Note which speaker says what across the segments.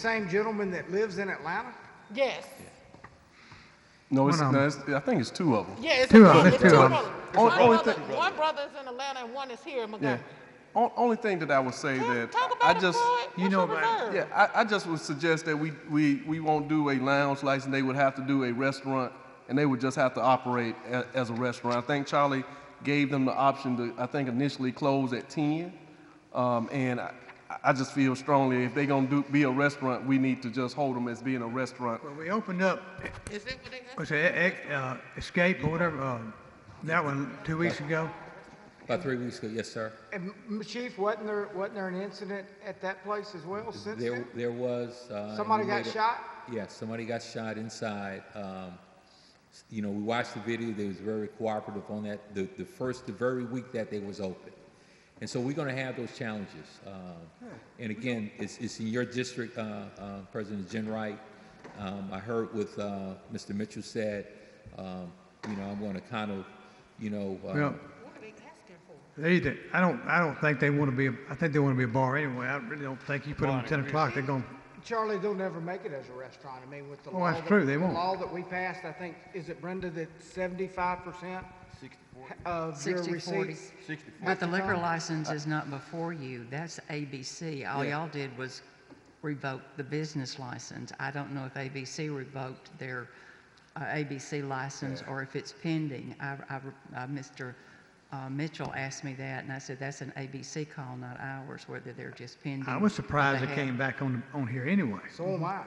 Speaker 1: Same gentleman that lives in Atlanta?
Speaker 2: Yes.
Speaker 3: No, it's,
Speaker 4: One of
Speaker 3: no it's, I think it's two of them.
Speaker 2: Yeah, it's
Speaker 4: Two
Speaker 2: a
Speaker 4: of
Speaker 2: brother.
Speaker 4: them,
Speaker 2: It's
Speaker 4: two
Speaker 2: two
Speaker 4: of them.
Speaker 2: brothers.
Speaker 3: Oh,
Speaker 2: One,
Speaker 3: oh, it's
Speaker 2: brother,
Speaker 3: the-
Speaker 2: one brother's in Atlanta and one is here in
Speaker 3: Yeah.
Speaker 2: Montgomery.
Speaker 3: O- only thing that I would say that
Speaker 2: Talk about
Speaker 3: I
Speaker 2: it,
Speaker 3: just
Speaker 2: Floyd.
Speaker 4: you
Speaker 2: What's
Speaker 4: know
Speaker 2: your
Speaker 4: about it.
Speaker 2: reserve?
Speaker 3: yeah I, I just would suggest that we, we we won't do a lounge license. They would have to do a restaurant, and they would just have to operate a, as a restaurant. I think Charlie gave them the option to I think initially close at ten, um, and I, I just feel strongly if they're gonna do be a restaurant, we need to just hold them as being a restaurant.
Speaker 4: Well, we opened up,
Speaker 2: Is it what they got?
Speaker 4: was it Ex- uh, Escape or whatever, uh, that one two weeks ago?
Speaker 5: About three weeks ago, yes, sir.
Speaker 1: And m- Chief, wasn't there, wasn't there an incident at that place as well since
Speaker 5: There,
Speaker 1: then?
Speaker 5: there was. uh, and
Speaker 1: Somebody
Speaker 5: we
Speaker 1: got
Speaker 5: made a-
Speaker 1: shot?
Speaker 5: Yeah, somebody got shot inside. Um, s- You know, we watched the video, they was very cooperative on that, the, the first, the very week that they was open. And so we're gonna have those challenges. Um, And again, it's, it's in your district, uh, uh, President Jen Wright. Um, I heard what uh, Mr. Mitchell said, um, you know, I'm gonna kind of, you know, uh,
Speaker 4: Well,
Speaker 2: What are they asking for?
Speaker 4: they either, I don't, I don't think they want to be, a- I think they want to be a bar anyway. I really don't think you put them at ten o'clock, they're going,
Speaker 1: Charlie, they'll never make it as a restaurant. I mean, with the
Speaker 4: Oh,
Speaker 1: law.
Speaker 4: that's
Speaker 1: that-
Speaker 4: true, they
Speaker 1: the
Speaker 4: won't.
Speaker 1: Law that we passed, I think, is it Brenda, that seventy-five percent of your
Speaker 6: 60/40.
Speaker 1: receipts?
Speaker 6: But the liquor license is not before you, that's ABC. All y'all did was revoke the business license. I don't know if ABC revoked their uh, ABC license or if it's pending. I, I, uh, Mr. uh, Mitchell asked me that, and I said, that's an ABC call, not ours, whether they're just pending.
Speaker 4: I was
Speaker 6: or
Speaker 4: surprised
Speaker 6: they
Speaker 4: they came
Speaker 6: have-
Speaker 4: back on, on here anyway.
Speaker 1: So am I.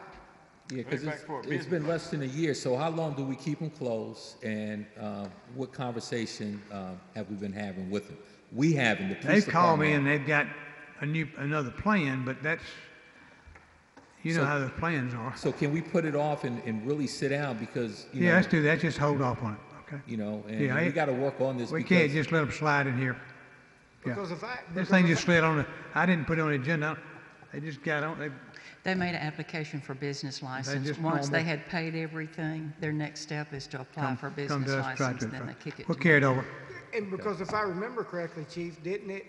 Speaker 5: Yeah, because it's, it's been less than a year, so how long do we keep them closed? And um, what conversation um, have we been having with them? We haven't, the police
Speaker 4: They've called me and
Speaker 5: department.
Speaker 4: they've got a new, another plan, but that's, you know
Speaker 5: So-
Speaker 4: how those plans are.
Speaker 5: So can we put it off and, and really sit down because, you
Speaker 4: Yeah,
Speaker 5: know,
Speaker 4: let's do that, just hold off on it, okay?
Speaker 5: you know, and
Speaker 4: Yeah,
Speaker 5: and we
Speaker 4: it-
Speaker 5: got to work on this
Speaker 4: We can't
Speaker 5: because
Speaker 4: just let them slide in here. Yeah.
Speaker 1: Because if I-
Speaker 4: This
Speaker 1: because
Speaker 4: thing
Speaker 1: if
Speaker 4: just
Speaker 1: I-
Speaker 4: slid on the, I didn't put it on the agenda. They just got on, they,
Speaker 6: They made an application for business license.
Speaker 4: just
Speaker 6: Once they
Speaker 4: normal-
Speaker 6: had paid everything, their next step is to apply
Speaker 4: come,
Speaker 6: for a
Speaker 4: come
Speaker 6: business
Speaker 4: to us, try
Speaker 6: license,
Speaker 4: to.
Speaker 6: then they kick it
Speaker 4: We'll
Speaker 6: to
Speaker 4: carry it over.
Speaker 1: And because if I remember correctly, Chief, didn't it,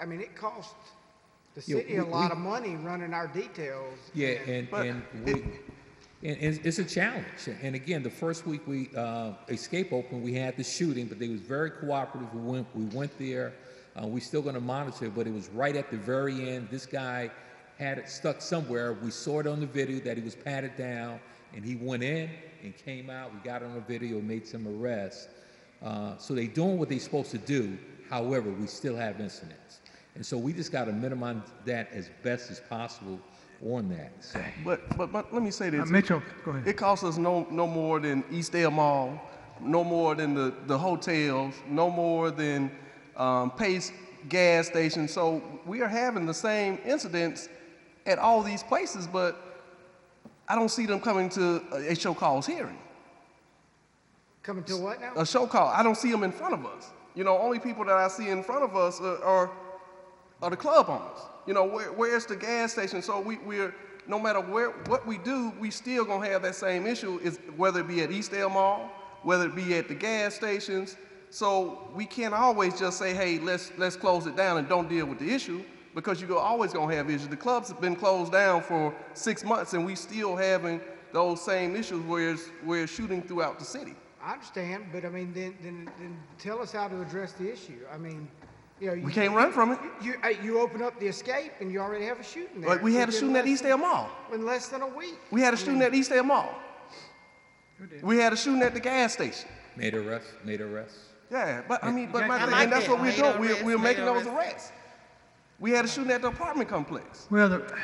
Speaker 1: I mean, it cost the
Speaker 5: Yeah,
Speaker 1: city a
Speaker 5: we-
Speaker 1: lot
Speaker 5: we-
Speaker 1: of money running our details.
Speaker 5: Yeah, and,
Speaker 3: But
Speaker 5: and we, and, and it's a challenge. And again, the first week we, uh, Escape opened, we had the shooting, but they was very cooperative. We went, we went there. Uh, we still gonna monitor, but it was right at the very end. This guy had it stuck somewhere. We saw it on the video that he was patted down and he went in and came out. We got it on the video, made some arrests. Uh, so they doing what they supposed to do. However, we still have incidents. And so we just gotta minimize that as best as possible on that. So-
Speaker 3: But but, but let me say
Speaker 4: Uh,
Speaker 3: this.
Speaker 4: Mitchell, go ahead.
Speaker 3: It costs us no, no more than East Air Mall, no more than the, the hotels, no more than um, Pace gas station. So we are having the same incidents at all these places, but I don't see them coming to a, a show cause hearing.
Speaker 1: Coming to what now?
Speaker 3: A show call. I don't see them in front of us. You know, only people that I see in front of us are, are, are the club owners. You know, where, where's the gas station? So we, we're, no matter where, what we do, we still gonna have that same issue, is whether it be at Eastdale Mall, whether it be at the gas stations. So we can't always just say, hey, let's, let's close it down and don't deal with the issue, because you're always gonna have issues. The clubs have been closed down for six months, and we still having those same issues where it's, where it's shooting throughout the city.
Speaker 1: I understand, but I mean, then, then, then tell us how to address the issue. I mean, you know. you-
Speaker 3: We can't run from it.
Speaker 1: You, uh, you open up the escape and you already have a shooting there.
Speaker 3: Like we had a
Speaker 1: within
Speaker 3: shooting at
Speaker 1: less-
Speaker 3: Eastdale Mall.
Speaker 1: In less than a week.
Speaker 3: We had a shooting at Eastdale Mall. We had a shooting at the gas station.
Speaker 5: Made arrests, made arrests.
Speaker 3: Yeah, but I mean, but my
Speaker 2: I
Speaker 3: thing,
Speaker 2: like
Speaker 3: and that's
Speaker 2: that.
Speaker 3: what we're
Speaker 2: Made
Speaker 3: doing. We're,
Speaker 2: arrests,
Speaker 3: we're
Speaker 2: made
Speaker 3: making those
Speaker 2: arrests.
Speaker 3: arrests. We had a shooting at the apartment complex.
Speaker 4: Well, the,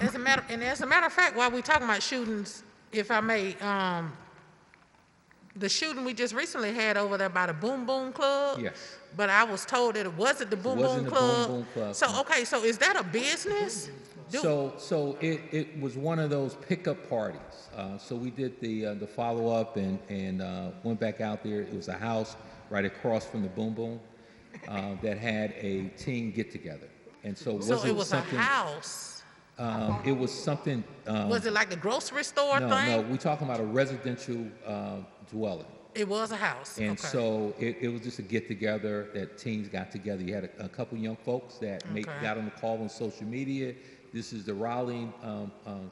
Speaker 2: As a matter, and as a matter of fact, while we talking about shootings, if I may, um, the shooting we just recently had over there by the Boom Boom Club.
Speaker 5: Yes.
Speaker 2: But I was told that it wasn't the Boom Boom
Speaker 5: wasn't the Boom
Speaker 2: Club.
Speaker 5: Boom Club,
Speaker 2: So,
Speaker 5: no.
Speaker 2: okay, so is that a business? Do-
Speaker 5: So, so it, it was one of those pickup parties. Uh, so we did the, uh, the follow-up and, and, uh, went back out there. It was a house right across from the Boom Boom, uh, that had a teen get-together. And so
Speaker 2: So it
Speaker 5: wasn't
Speaker 2: was a
Speaker 5: something,
Speaker 2: house.
Speaker 5: um, it was something, um,
Speaker 2: Was it like the grocery store
Speaker 5: no,
Speaker 2: thing?
Speaker 5: no, we talking about a residential, uh, dwelling.
Speaker 2: It was a house.
Speaker 5: And
Speaker 2: okay.
Speaker 5: so it, it was just a get together that teens got together. You had a, a couple young folks that make,
Speaker 2: Okay.
Speaker 5: got on the call on social media. This is the Raleigh um, um,